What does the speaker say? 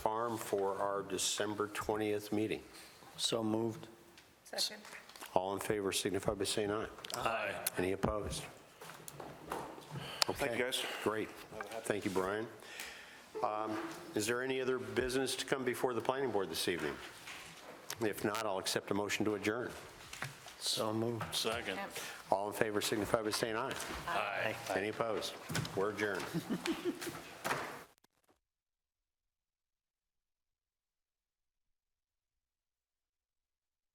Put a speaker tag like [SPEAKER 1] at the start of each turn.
[SPEAKER 1] quorum for our December 20th meeting.
[SPEAKER 2] So moved.
[SPEAKER 3] Second.
[SPEAKER 1] All in favor signify by saying aye.
[SPEAKER 2] Aye.
[SPEAKER 1] Any opposed?
[SPEAKER 4] Thank you,
[SPEAKER 1] Okay,
[SPEAKER 4] guys.
[SPEAKER 1] Great. Thank you, Brian. Um, Is there any other business to come before the planning board this evening? If not, I'll accept a motion to adjourn.
[SPEAKER 2] So moved.
[SPEAKER 4] Second.
[SPEAKER 1] All in favor signify by saying aye.
[SPEAKER 2] Aye.
[SPEAKER 1] Any opposed? We're adjourned.